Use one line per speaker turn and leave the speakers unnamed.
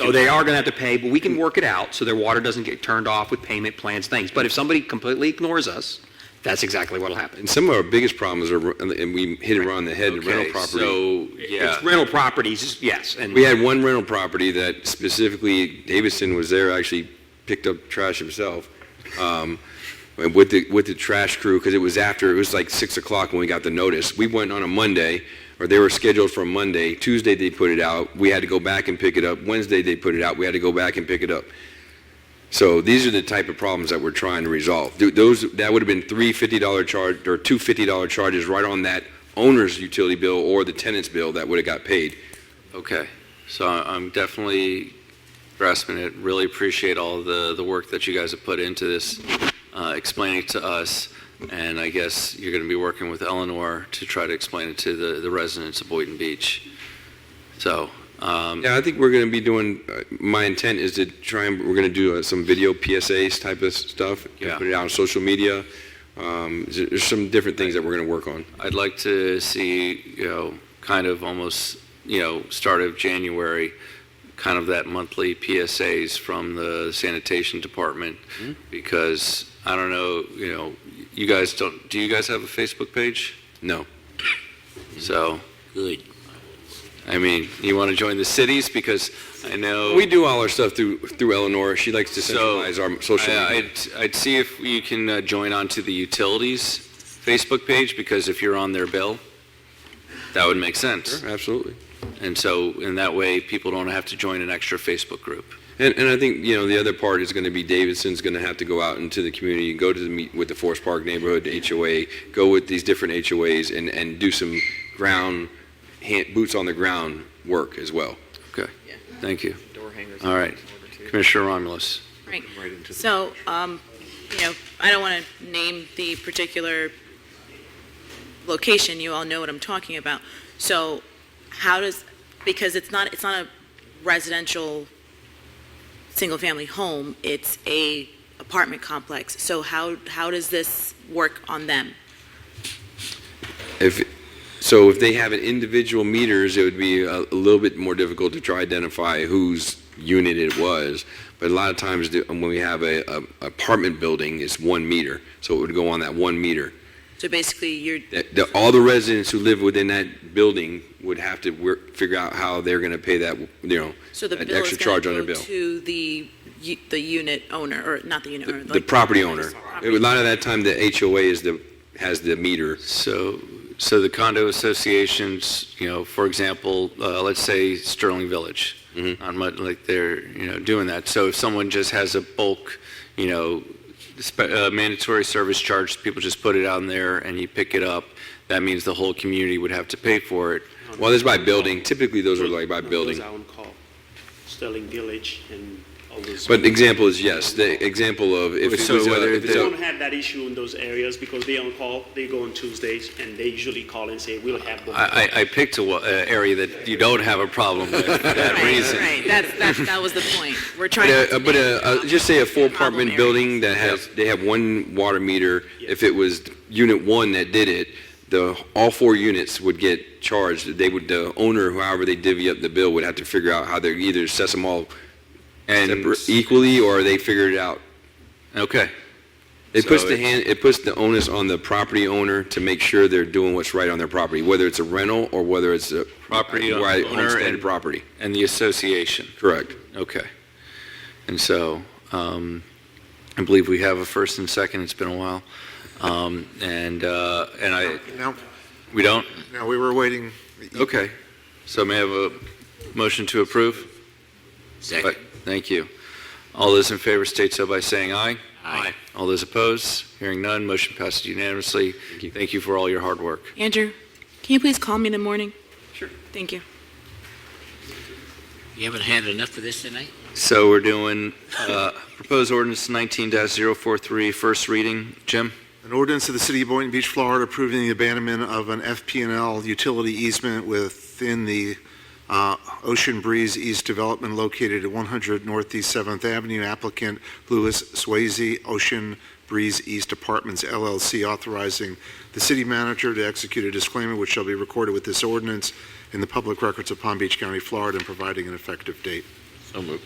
No, Oh, they are going to have to pay, but we can work it out so their water doesn't get turned off with payment plans, things. But if somebody completely ignores us, that's exactly what'll happen.
And some of our biggest problems are, and we hit it around the head, rental
Okay,
property.
so, yeah.
It's rental properties, yes, and.
We had one rental property that specifically, Davidson was there, actually picked up trash himself, um, and with the, with the trash crew, because it was after, it was like 6 o'clock when we got the notice. We went on a Monday, or they were scheduled for a Monday. Tuesday, they put it out. We had to go back and pick it up. Wednesday, they put it out. We had to go back and pick it up. So these are the type of problems that we're trying to resolve. Th- Those, that would have been three $50 charge, or two $50 charges right on that owner's utility bill or the tenant's bill that would have got paid.
Okay, so I- I'm definitely grasping it, really appreciate all the, the work that you guys have put into this, uh, explaining to us, and I guess you're going to be working with Eleanor to try to explain it to the, the residents of Boynton Beach. So, um,
Yeah, I think we're going to be doing, uh, my intent is to try and, we're going to do uh, some video PSAs type of stuff. and
Yeah.
Put it out on social media. Um, there- There's some different things that we're going to work on.
I'd like to see, you know, kind of almost, you know, start of January, kind of that monthly PSAs from the sanitation department,
Mm-hmm.
because I don't know, you know, you guys don't, do you guys have a Facebook page?
No.
So,
Good.
I mean, you want to join the cities because I know.
We do all our stuff through, through Eleanor. She likes to
Oh. So,
centralize our social
I- uh,
media.
I'd, I'd see if you can uh, join onto the utilities Facebook page because if you're on their bill, that would make sense.
Sure, Absolutely.
And so, in that way, people don't have to join an extra Facebook group.
And, and I think, you know, the other part is going to be Davidson's going to have to go out into the community, go to the meet with the Forest Park neighborhood, the HOA, go with these different HOAs and, and do some ground, hand, boots on the ground work as well.
Thank you. All right. Commissioner Romulus.
Right. So, um, you know, I don't want to name the particular location, you all know what I'm talking about. So how does, because it's not, it's not a residential, single-family home, it's a apartment complex. So how, how does this work on them?
If, so if they have an individual meters, it would be a, a little bit more difficult to try to identify whose unit it was. But a lot of times the- when we have a, a apartment building, it's one meter, so it would go on that one meter.
So basically, you're,
That- the- all the residents who live within that building would have to work, figure out how they're going to pay that, you know,
so the
An
bill is
extra charge on
going
their
to go
bill.
to the, u- the unit owner, or not the unit
the,
owner.
the
like-
property owner. A
Property.
lot of that time, the HOA is the, has the meter.
So, so the condo associations, you know, for example, uh, let's say Sterling Village,
Mhm.
not much like they're, you know, doing that. So if someone just has a bulk, you know, spe- uh, mandatory service charge, people just put it on there and you pick it up, that means the whole community would have to pay for it.
Well, there's by building. Typically, those are like by
No,
building.
Those are on call. Sterling Village and all those.
But example is, yes, the example of if it
So
was, a-
whether
if
We
it's a-
don't have that issue in those areas because they on call, they go on Tuesdays and they usually call and say, we'll have them.
I, I- I picked a, wa- uh, area that you don't have a problem with for that
Right,
reason.
Right, that's, that's, that was the point. We're trying
But,
to.
uh, but uh, uh, just say a full
Problem
apartment
area.
building that has, they have one water meter, if it was unit one that did it, the, all four units would get charged, they would, the owner, however they divvy up the bill, would have to figure out how they're either assess them all
And,
separate- equally, or they figure it out.
okay.
It puts
So
the
it-
hand, it puts the onus on the property owner to make sure they're doing what's right on their property, whether it's a rental or whether it's a.
Property owner
right, homestead
and-
property,
And the association.
correct.
Okay. And so, um, I believe we have a first and second, it's been a while. Um, and, uh, and I,
No,
we don't?
no, we were waiting.
Okay. So may I have a motion to approve?
Second.
Thank you. All those in favor state so by saying aye.
Aye.
All those opposed, hearing none, motion passes unanimously. Thank you for all your hard work.
Andrew, can you please call me in the morning? Sure. Thank you.
You haven't had enough of this tonight?
So we're doing, uh, proposed ordinance 19-043, first reading. Jim?
An ordinance of the City of Boynton Beach, Florida approving the abandonment of an FPNL utility easement within the uh, Ocean Breeze East Development located at 100 Northeast 7th Avenue. Applicant Louis Swayze, Ocean Breeze East Apartments LLC, authorizing the city manager to execute a disclaimer which shall be recorded with this ordinance in the public records of Palm Beach County, Florida, and providing an effective date.
So moved.